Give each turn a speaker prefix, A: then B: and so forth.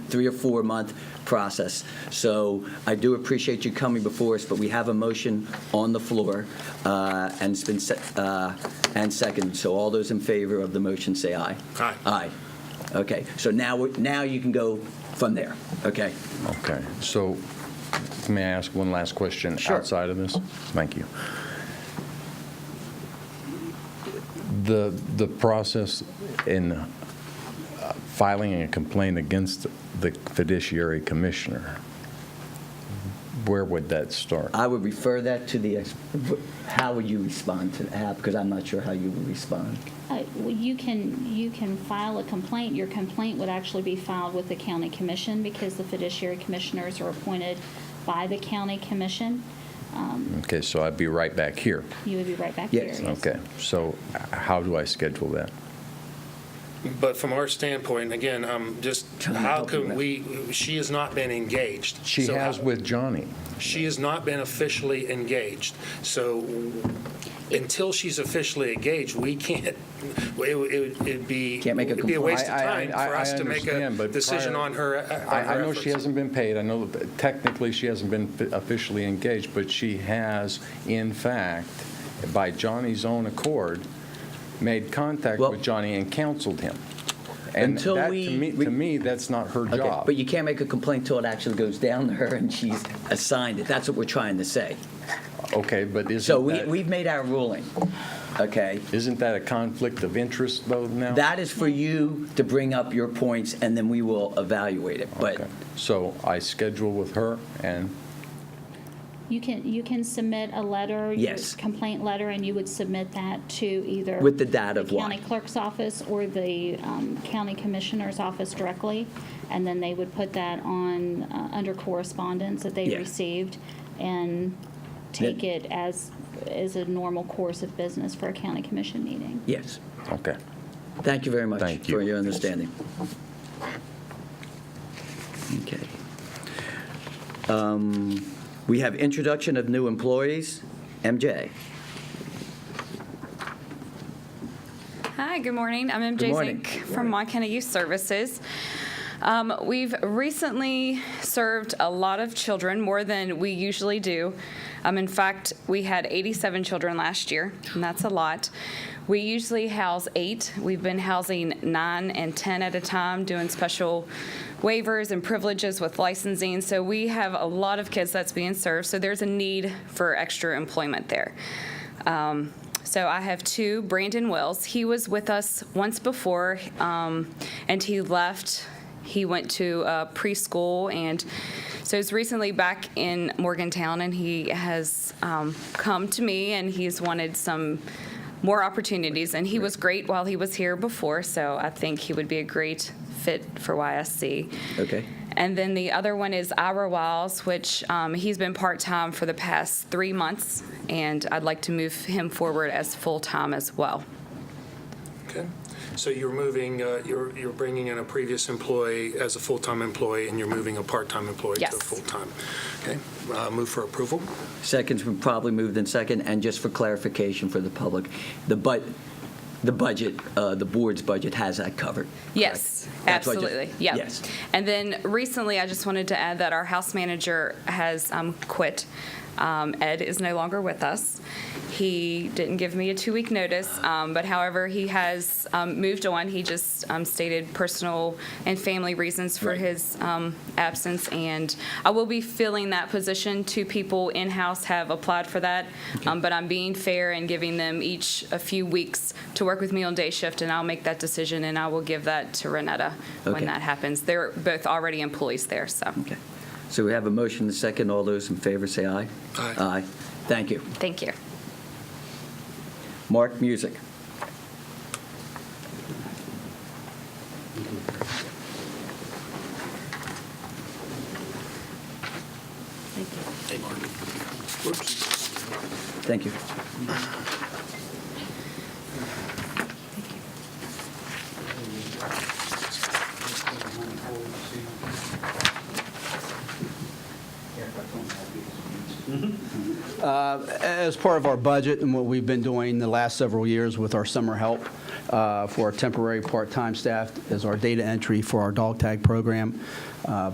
A: three or four month process. So I do appreciate you coming before us, but we have a motion on the floor, uh, and it's been, se- uh, and second. So all those in favor of the motion, say aye.
B: Aye.
A: Aye. Okay, so now, we- now you can go from there, okay?
C: Okay, so may I ask one last question?
A: Sure. Oh.
C: Outside of this? Thank you. The, the process in uh, filing a complaint against the fiduciary commissioner, where would that start?
A: I would refer that to the, ex- how would you respond to that? Because I'm not sure how you would respond.
D: Uh, well, You can, you can file a complaint. Your complaint would actually be filed with the county commission because the fiduciary commissioners are appointed by the county commission.
C: Okay, so I'd be right back here.
D: You would be right back here.
A: Yes.
C: Okay, so how do I schedule that?
B: But from our standpoint, again, um, just,
A: Trying to
B: how
A: help you
B: could
A: with-
B: we, she has not been engaged.
C: She
B: So
C: has
B: how-
C: with Johnny.
B: She has not been officially engaged. So until she's officially engaged, we can't, it would- it would it'd be.
A: Can't make a
B: It'd be a waste of
C: I- I-
B: time for
C: I-
B: us
C: I
B: to make a
C: understand, but
B: decision
C: prior-
B: on her. uh, on
C: I, I
B: her
C: know she
B: efforts.
C: hasn't been paid, I know that technically she hasn't been fi- officially engaged, but she has, in fact, by Johnny's own accord, made contact
A: Well-
C: with Johnny and counseled him. And
A: Until
C: that,
A: we-
C: to me,
A: we-
C: to me, that's not her
A: Okay,
C: job.
A: But you can't make a complaint till it actually goes down to her and she's assigned it. That's what we're trying to say.
C: Okay, but
A: So
C: isn't
A: we,
C: that,
A: we've made our ruling, okay?
C: isn't that a conflict of interest, though, now?
A: That is for you to bring up your points and then we will evaluate it. But
C: Okay, So I schedule with her, and,
D: You can, you can submit a letter. your
A: Yes.
D: Complaint letter, and you would submit that to either.
A: With the data of why.
D: County clerk's office or the um, county commissioner's office directly. And then they would put that on, uh, under correspondence that they
A: Yeah.
D: received and take it as, as a normal course of business for a county commission meeting.
A: yes,
C: okay.
A: thank you very much
C: Thank you.
A: for your understanding. Okay. Um, We have introduction of new employees. MJ,
E: Hi, good morning. I'm
A: Good
E: MJ
A: morning.
E: Zink from Mon County Youth Services. Um, we've recently served a lot of children, more than we usually do. Um, in fact, we had 87 children last year, and that's a lot. We usually house eight. We've been housing nine and 10 at a time, doing special waivers and privileges with licensing. So we have a lot of kids that's being served. So there's a need for extra employment there. Um, so I have two. Brandon Wells, he was with us once before, um, and he left. He went to uh, preschool, and so he's recently back in Morgantown, and he has um, come to me, and he's wanted some more opportunities. And he was great while he was here before, so I think he would be a great fit for YSC.
A: okay?
E: And then the other one is Ira Wiles, which um, he's been part time for the past three months, and I'd like to move him forward as full time as well.
B: Okay. So you're moving, uh, you're, you're bringing in a previous employee as a full-time employee, and you're moving a part-time employee to a
E: Yes.
B: full-time. Okay, Uh, move for approval.
A: Seconds were probably moved in second, and just for clarification for the public, the but, the budget, uh, the board's budget has that covered. correct?
E: Yes,
A: That's what I just-
E: absolutely. Yeah.
A: Yes.
E: And then recently, I just wanted to add that our house manager has um, quit. Um, Ed is no longer with us. He didn't give me a two week notice, um, but however, he has um, moved on. He just um, stated personal and family reasons for
A: Right.
E: his um, absence, and I will be filling that position. Two people in house have applied for that, um, but I'm being fair and giving them each a few weeks to work with me on day shift, and I'll make that decision and I will give that to Renetta
A: Okay.
E: when that happens. They're both already employees there, so
A: Okay. So we have a motion and a second. All those in favor say aye.
B: Aye.
A: Aye. Thank you.
E: thank you.
A: Mark Music.
B: Hey, Mark. Whoops.
A: Thank you.
F: Uh, As part of our budget and what we've been doing the last several years with our summer help, uh, for our temporary part-time staff as our data entry for our dog tag program. Uh,